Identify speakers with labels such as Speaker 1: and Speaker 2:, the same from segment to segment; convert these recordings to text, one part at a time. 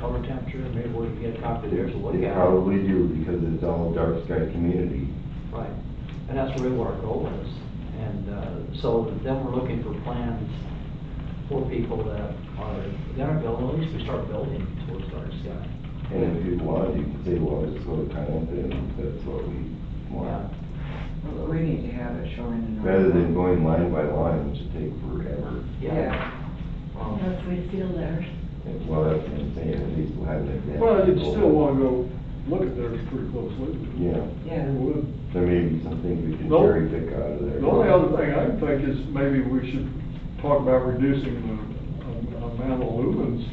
Speaker 1: temperature, and maybe we can get a copy there to look
Speaker 2: They
Speaker 1: at.
Speaker 2: probably do, because it's all dark sky community.
Speaker 1: Right, and that's really what our goal is. And uh, so then we're looking for plans for people that are, that are building, at least we start building towards dark sky.
Speaker 2: And if you want, you can say, well, just go to Conant, and that's what we want.
Speaker 3: Well, We need to have it shown in. our-
Speaker 2: Rather than going line by line, which would take forever.
Speaker 1: Yeah. Um,
Speaker 4: Unless we feel theirs.
Speaker 2: And, Well, that's what I'm saying, at least we'll have that. data.
Speaker 5: Well, you'd still wanna go look at theirs pretty closely.
Speaker 2: Yeah,
Speaker 3: Yeah,
Speaker 5: You would.
Speaker 2: there may be some things we can
Speaker 5: Nope.
Speaker 2: cherry pick out of there.
Speaker 5: The only other thing I can think is maybe we should talk about reducing the um, amount of lumens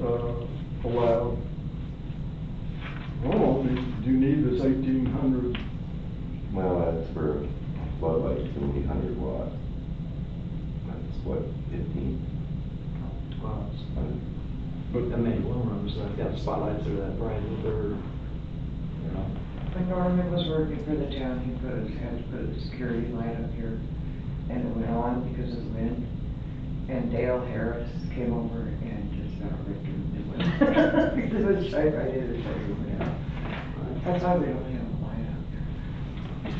Speaker 5: uh, allowed. Well, do you need this eighteen hundred?
Speaker 2: Well, that's for floodlights, only hundred watts. That's what, fifteen?
Speaker 1: well, it's-
Speaker 5: But
Speaker 1: The many loom rooms that have got spotlights that are that bright, that they're, you know,
Speaker 3: when Norman was working for the town, he put his, had to put a security light up here, and it went on because of the wind. And Dale Harris came over and just about ripped him. It went- it was right, right in the shade, went out. That's why we don't have a light out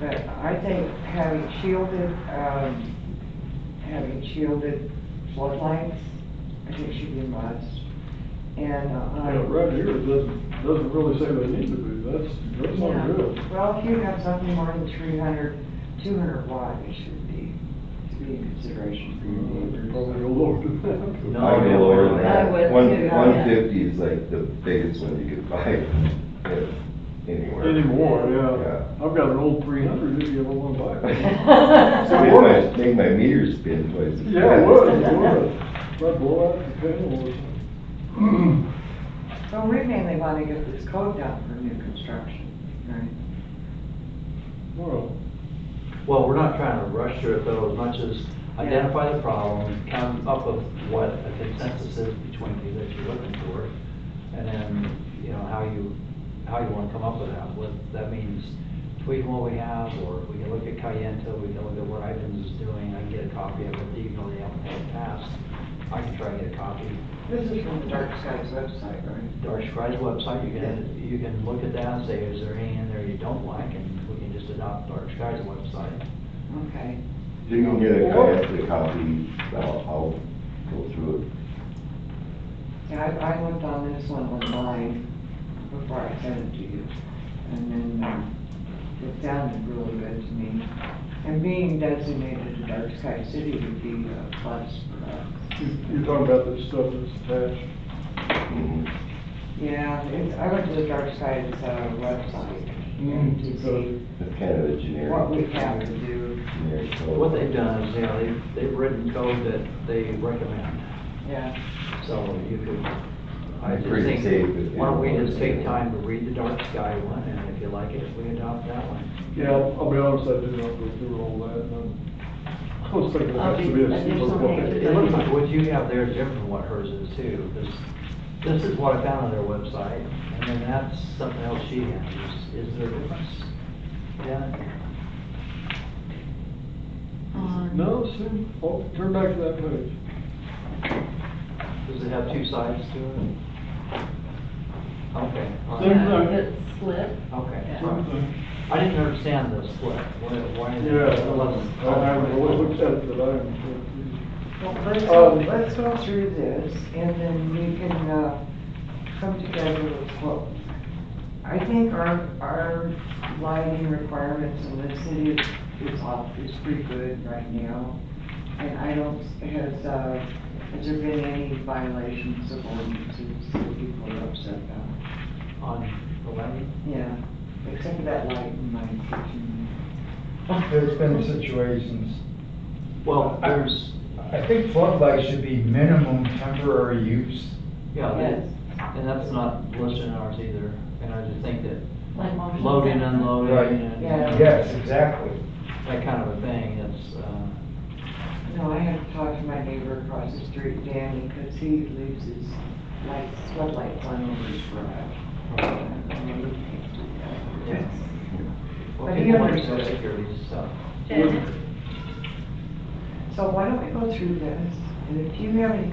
Speaker 3: there. But I think having shielded, um, having shielded floodlights, I think should be a must. And, uh,
Speaker 5: Yeah, right here, it doesn't, doesn't really say they need to be, that's, that's
Speaker 3: yeah.
Speaker 5: not good.
Speaker 3: Well, if you have something more than 300, 200 watt, it should be, to be in consideration for your neighbors.
Speaker 5: Probably a lower than that.
Speaker 1: No.
Speaker 2: I'd be lower than
Speaker 4: I
Speaker 2: that.
Speaker 4: would
Speaker 2: One,
Speaker 4: too, yeah.
Speaker 2: one fifty is like the biggest one you could buy if anywhere.
Speaker 5: Anymore,
Speaker 2: Yeah.
Speaker 5: yeah. I've got an old three hundred, if you ever wanna buy it.
Speaker 2: So make my, make my meter spin twice. as
Speaker 5: Yeah, it
Speaker 2: fast.
Speaker 5: would, it would. Might blow out the panel or something.
Speaker 3: So we mainly want to get this code down for new construction, right?
Speaker 5: Well,
Speaker 1: Well, we're not trying to rush through it though, as much as identify the problem, come up with what a consensus is between you that you're looking for, and then, you know, how you, how you wanna come up with that, what, that means tweaking what we have, or we can look at Cayenta, we can look at what Ivans is doing, I can get a copy of it, even though they haven't had it passed, I can try and get a copy.
Speaker 3: This is from the Dark Skies website, right?
Speaker 1: Dark Sky's website, you can, you can look at that and say, is there any in there you don't like, and we can just adopt Dark Sky's website.
Speaker 3: Okay.
Speaker 2: If you can get a copy, copy, I'll, I'll go through it.
Speaker 3: Yeah, I, I looked on this one online before I sent it to you, and then, um, it sounded really good to me. And being designated a dark sky city would be a plus for us.
Speaker 5: you- you're talking about the stuff that's attached.
Speaker 2: Mhm.
Speaker 3: Yeah, it, I went to the dark sky's, uh, website and to see
Speaker 2: It's kind of a generic.
Speaker 3: what we have to do,
Speaker 2: generic
Speaker 1: Well,
Speaker 2: code.
Speaker 1: What they've done is, you know, they've, they've written code that they recommend,
Speaker 3: yeah.
Speaker 1: so you could, I
Speaker 2: It's
Speaker 1: just
Speaker 2: pretty safe
Speaker 1: think,
Speaker 2: if
Speaker 1: why don't we
Speaker 2: you-
Speaker 1: just take time to read the dark sky one, and if you like it, we adopt that one.
Speaker 5: Yeah, I'll I'll be honest, I did not go through all that, and I'm- I was thinking it has to be a
Speaker 4: I'll be-
Speaker 5: super
Speaker 4: I'll do
Speaker 1: It
Speaker 5: book.
Speaker 4: something.
Speaker 1: it looks like what you have there is different from what hers is too, this, this is what I found on their website, and then that's something else she has, is is there a difference? Yeah,
Speaker 4: Um,
Speaker 5: No, see, oh, turn back to that page.
Speaker 1: does it have two sides to it? Okay, all
Speaker 5: Same
Speaker 1: right,
Speaker 4: yeah,
Speaker 5: thing.
Speaker 4: It's split.
Speaker 1: okay.
Speaker 4: Yeah.
Speaker 1: all right. I didn't understand this split, why, why is it?
Speaker 5: Yeah, I haven't really looked at it, but I'm.
Speaker 3: Well, let's,
Speaker 5: Um,
Speaker 3: let's go through this, and then we can, uh, come together with what, I think our, our lighting requirements in the city is, is off, is pretty good right now. And I don't, has, uh, has there been any violations of ordinances that people are upset about?
Speaker 1: On the levy?
Speaker 3: Yeah, except for that light in my kitchen.
Speaker 6: There's been situations,
Speaker 1: Well, there's,
Speaker 6: I think floodlights should be minimum temporary use.
Speaker 1: yeah,
Speaker 3: Yes.
Speaker 1: that- and that's not listed in ours either, and I just think that
Speaker 4: Like motion.
Speaker 1: loading,
Speaker 4: sensor.
Speaker 1: unloading,
Speaker 6: Right.
Speaker 1: and
Speaker 3: Yeah.
Speaker 6: Yes, exactly.
Speaker 1: that kind of a thing, it's, uh,
Speaker 3: No, I had to talk to my neighbor across the street, Danny, because he leaves his lights, floodlights on over his garage.
Speaker 1: yeah. Well,
Speaker 3: But he
Speaker 1: people want social
Speaker 3: understood.
Speaker 1: security stuff.
Speaker 4: Janet?
Speaker 3: So why don't we go through this, and if you have any